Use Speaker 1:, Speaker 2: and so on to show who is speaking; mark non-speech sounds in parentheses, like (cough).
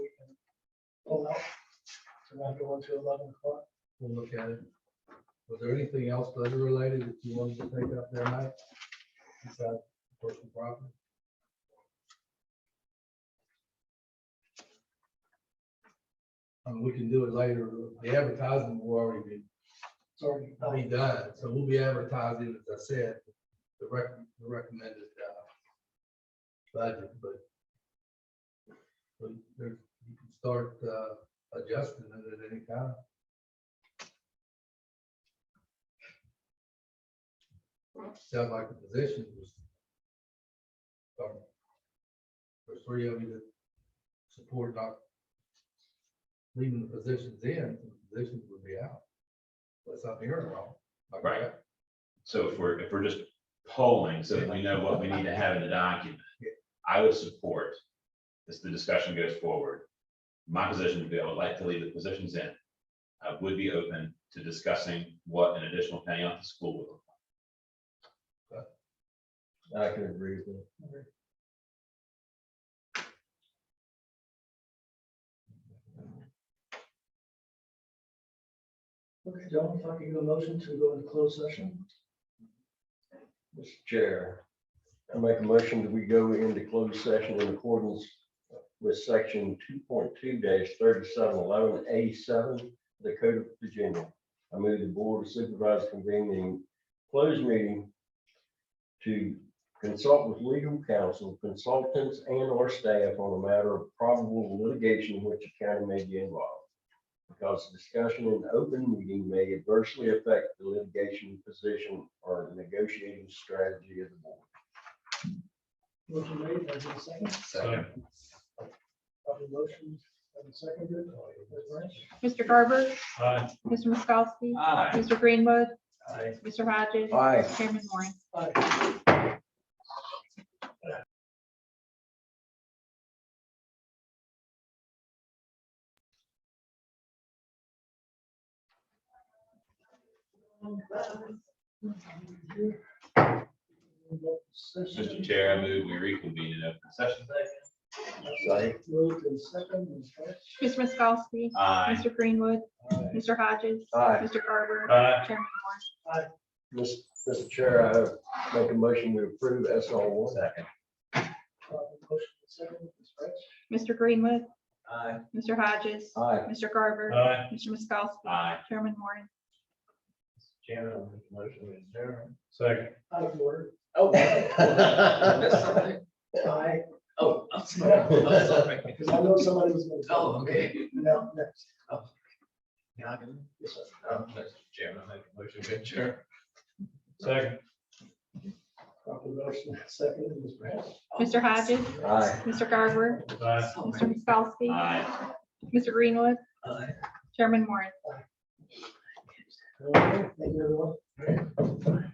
Speaker 1: from after one to eleven o'clock.
Speaker 2: we'll look at it. Was there anything else budget related that you wanted to take up there, Mike? Besides personal property? Um, we can do it later. The advertising will already be
Speaker 1: It's already.
Speaker 2: I'll be done, so we'll be advertising, as I said, the rec, the recommended, uh, budget, but but there, you can start, uh, adjusting it at any time. Sounds like the position was um, there's three of you that support not leaving the positions in, the positions would be out. Unless I'm hearing wrong. Am I correct?
Speaker 3: So if we're, if we're just polling, so that we know what we need to have in the document, I would support, as the discussion goes forward, my position would be, I would like to leave the positions in. I would be open to discussing what an additional penny off the school would look like.
Speaker 4: I can agree with you.
Speaker 1: Okay, John, if I can get a motion to go into closed session,
Speaker 4: Mr. Chair, I make a motion that we go into closed session in accordance with section two point two thirty-seven eleven A seven, of the Code of Virginia. I move the Board of Supervisors convening closed meeting to consult with legal counsel, consultants, and or staff on a matter of probable litigation in which the county may be involved. Because discussion in open meeting may adversely affect the litigation position or negotiating strategy of the board.
Speaker 1: motion made, that's a second,
Speaker 2: Second.
Speaker 1: proper motion, and seconded, Ms. Branch?
Speaker 5: Mr. Garber,
Speaker 6: Aye.
Speaker 5: Mr. Miskowski,
Speaker 6: Aye.
Speaker 5: Mr. Greenwood,
Speaker 6: Aye.
Speaker 5: Mr. Hodges,
Speaker 4: Aye.
Speaker 5: Chairman Moore.
Speaker 1: Aye.
Speaker 3: Mr. Chair, I move we reconvene in open session.
Speaker 4: Aye.
Speaker 1: Moved in second, Ms. Branch?
Speaker 5: Mr. Miskowski,
Speaker 3: Aye.
Speaker 5: Mr. Greenwood, Mr. Hodges,
Speaker 4: Aye.
Speaker 5: Mr. Garber,
Speaker 6: Aye.
Speaker 5: Chairman Moore.
Speaker 4: Mis- Mr. Chair, I make a motion to approve S R one. Second.
Speaker 1: Proper uh, motion in second, Ms. Branch?
Speaker 5: Mr. Greenwood,
Speaker 6: Aye.
Speaker 5: Mr. Hodges,
Speaker 4: (laughs) Aye.
Speaker 5: Mr. Garber,
Speaker 6: Aye.
Speaker 5: Mr. Miskowski,
Speaker 3: Aye.
Speaker 5: Chairman Moore.
Speaker 6: Chairman, I'll make a motion to adjourn. Second.
Speaker 1: Out of order. (laughs)
Speaker 6: Oh.
Speaker 4: missed something?
Speaker 1: Aye.
Speaker 6: Oh, I'm sorry, I'm sorry.
Speaker 1: Because I know somebody was going to.
Speaker 6: Oh, okay.
Speaker 1: No, next.
Speaker 6: Yeah, I can- Um, Mr. Chairman, I make a motion to adjourn. Second.
Speaker 1: Proper motion, second, Ms. Branch.
Speaker 5: Mr. Hodges,
Speaker 4: Aye.
Speaker 5: Mr. Garber,
Speaker 6: Aye.
Speaker 5: Mr. Miskowski,
Speaker 3: Aye.
Speaker 5: Mr. Greenwood,
Speaker 6: Aye.
Speaker 5: Chairman Moore.
Speaker 1: Okay, Thank you, everyone.